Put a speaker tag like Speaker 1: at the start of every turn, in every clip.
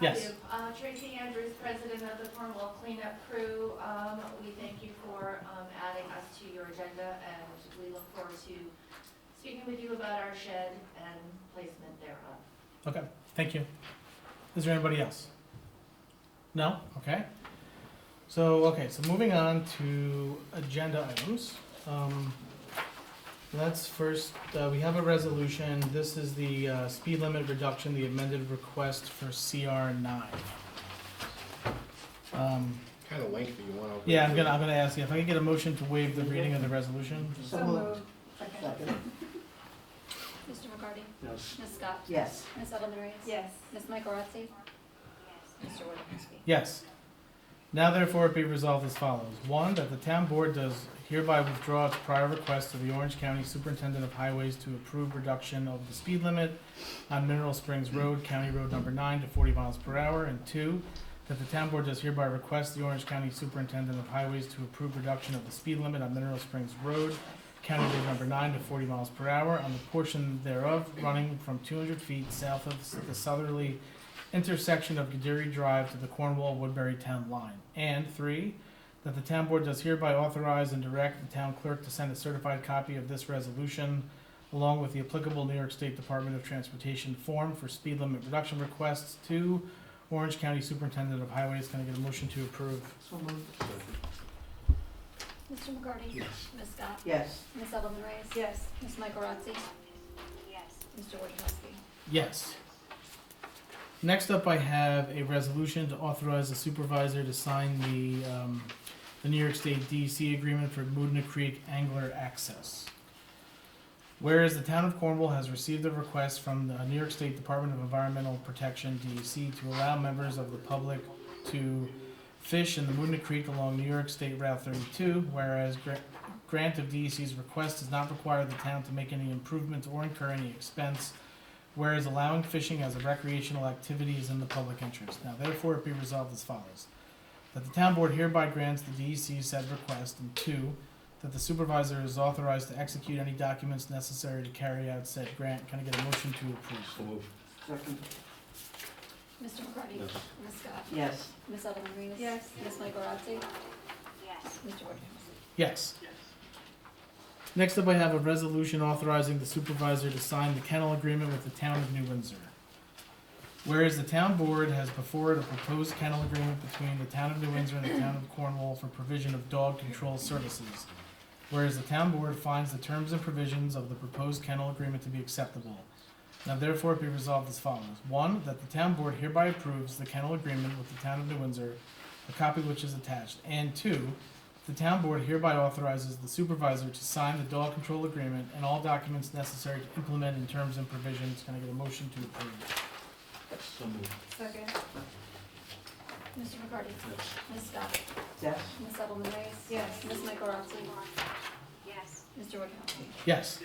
Speaker 1: I
Speaker 2: Yes.
Speaker 1: do. Uh, Tracy Andrews, president of the Cornwall Cleanup Crew. Um, We thank you for um, adding us to your agenda, and we look forward to speaking with you about our shed and placement thereof.
Speaker 2: Okay, thank you. Is there anybody else? No? Okay. So, okay, so moving on to agenda items. Um, Let's first, uh, we have a resolution. This is the uh, speed limit reduction, the amended request for CR nine. Um,
Speaker 3: Kind of lengthy, you want to.
Speaker 2: Yeah, I'm gonna, I'm gonna ask you if I can get a motion to waive the reading of the resolution.
Speaker 4: So moved. Second.
Speaker 5: Mr. McCarty?
Speaker 4: Yes.
Speaker 5: Ms. Scott?
Speaker 4: Yes.
Speaker 5: Ms. Ellen Reyes?
Speaker 1: Yes.
Speaker 5: Ms. Michael Rotzi? Mr. Wojciechowski?
Speaker 2: Yes. Now therefore be resolved as follows. One, that the town board does hereby withdraw its prior request to the Orange County Superintendent of Highways to approve reduction of the speed limit on Mineral Springs Road, County Road Number Nine to forty miles per hour. And two, that the town board does hereby request the Orange County Superintendent of Highways to approve reduction of the speed limit on Mineral Springs Road, County Road Number Nine to forty miles per hour on the portion thereof running from two hundred feet south of the southerly intersection of Gadiri Drive to the Cornwall Woodbury Town line. And three, that the town board does hereby authorize and direct the town clerk to send a certified copy of this resolution along with the applicable New York State Department of Transportation form for speed limit reduction requests to Orange County Superintendent of Highways. Can I get a motion to approve?
Speaker 4: So moved.
Speaker 5: Mr. McCarty?
Speaker 3: Yes.
Speaker 5: Ms. Scott?
Speaker 4: Yes.
Speaker 5: Ms. Ellen Reyes?
Speaker 1: Yes.
Speaker 5: Ms. Michael Rotzi? Mr. Wojciechowski?
Speaker 2: Yes. Next up, I have a resolution to authorize the supervisor to sign the, um, the New York State DEC agreement for Moodna Creek angler access. Whereas the town of Cornwall has received a request from the New York State Department of Environmental Protection, DEC, to allow members of the public to fish in the Moodna Creek along New York State Route thirty-two, whereas gra- grant of DEC's request does not require the town to make any improvements or incur any expense whereas allowing fishing as a recreational activity is in the public interest. Now therefore it be resolved as follows. That the town board hereby grants the DEC said request, and two, that the supervisor is authorized to execute any documents necessary to carry out said grant. Can I get a motion to approve?
Speaker 3: move.
Speaker 4: Second.
Speaker 5: Mr. McCarty? Ms. Scott?
Speaker 4: Yes.
Speaker 5: Ms. Ellen Reyes?
Speaker 1: Yes.
Speaker 5: Ms. Michael Rotzi? Mr. Wojciechowski?
Speaker 2: Yes. Next up, I have a resolution authorizing the supervisor to sign the kennel agreement with the town of New Windsor. Whereas the town board has before it a proposed kennel agreement between the town of New Windsor and the town of Cornwall for provision of dog control services. Whereas the town board finds the terms and provisions of the proposed kennel agreement to be acceptable. Now therefore be resolved as follows. One, that the town board hereby approves the kennel agreement with the town of New Windsor, a copy which is attached. And two, the town board hereby authorizes the supervisor to sign the dog control agreement and all documents necessary to implement in terms and provisions. Can I get a motion to approve?
Speaker 3: So move.
Speaker 5: Second. Mr. McCarty?
Speaker 3: Yes.
Speaker 5: Ms. Scott?
Speaker 4: Yes.
Speaker 5: Ms. Ellen Reyes?
Speaker 1: Yes.
Speaker 5: Ms. Michael Rotzi? Mr. Wojciechowski?
Speaker 2: Yes.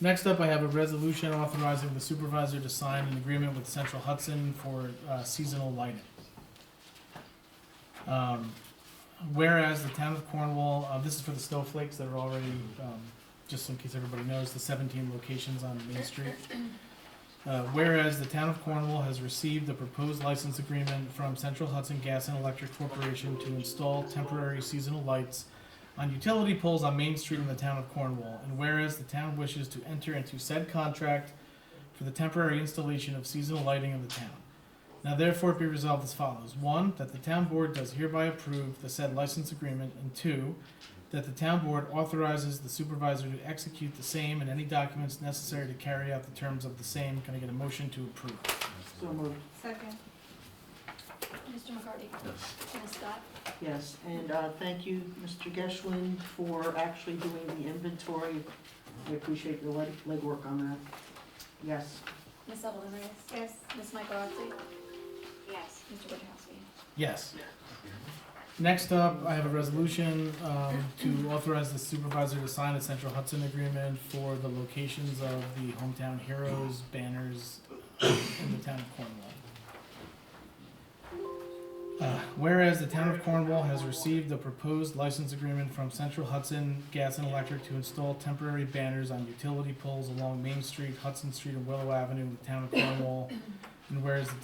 Speaker 2: Next up, I have a resolution authorizing the supervisor to sign an agreement with Central Hudson for uh, seasonal lighting. Um, Whereas the town of Cornwall, uh, this is for the snowflakes that are already, um, just in case everybody knows, the seventeen locations on Main Street. Uh, whereas the town of Cornwall has received a proposed license agreement from Central Hudson Gas and Electric Corporation to install temporary seasonal lights on utility poles on Main Street in the town of Cornwall. And whereas the town wishes to enter into said contract for the temporary installation of seasonal lighting of the town. Now therefore be resolved as follows. One, that the town board does hereby approve the said license agreement, and two, that the town board authorizes the supervisor to execute the same and any documents necessary to carry out the terms of the same. Can I get a motion to approve?
Speaker 4: So moved.
Speaker 1: Second.
Speaker 5: Mr. McCarty?
Speaker 3: Yes.
Speaker 5: Ms. Scott?
Speaker 4: Yes. And uh, thank you, Mr. Geschlin, for actually doing the inventory. We appreciate your leg- legwork on that. Yes.
Speaker 5: Ms. Ellen Reyes?
Speaker 1: Yes.
Speaker 5: Ms. Michael Rotzi? Mr. Wojciechowski?
Speaker 2: Yes. Next up, I have a resolution um, to authorize the supervisor to sign a Central Hudson agreement for the locations of the hometown heroes banners in the town of Cornwall. Uh, Whereas the town of Cornwall has received a proposed license agreement from Central Hudson Gas and Electric to install temporary banners on utility poles along Main Street, Hudson Street, and Willow Avenue in the town of Cornwall. And whereas the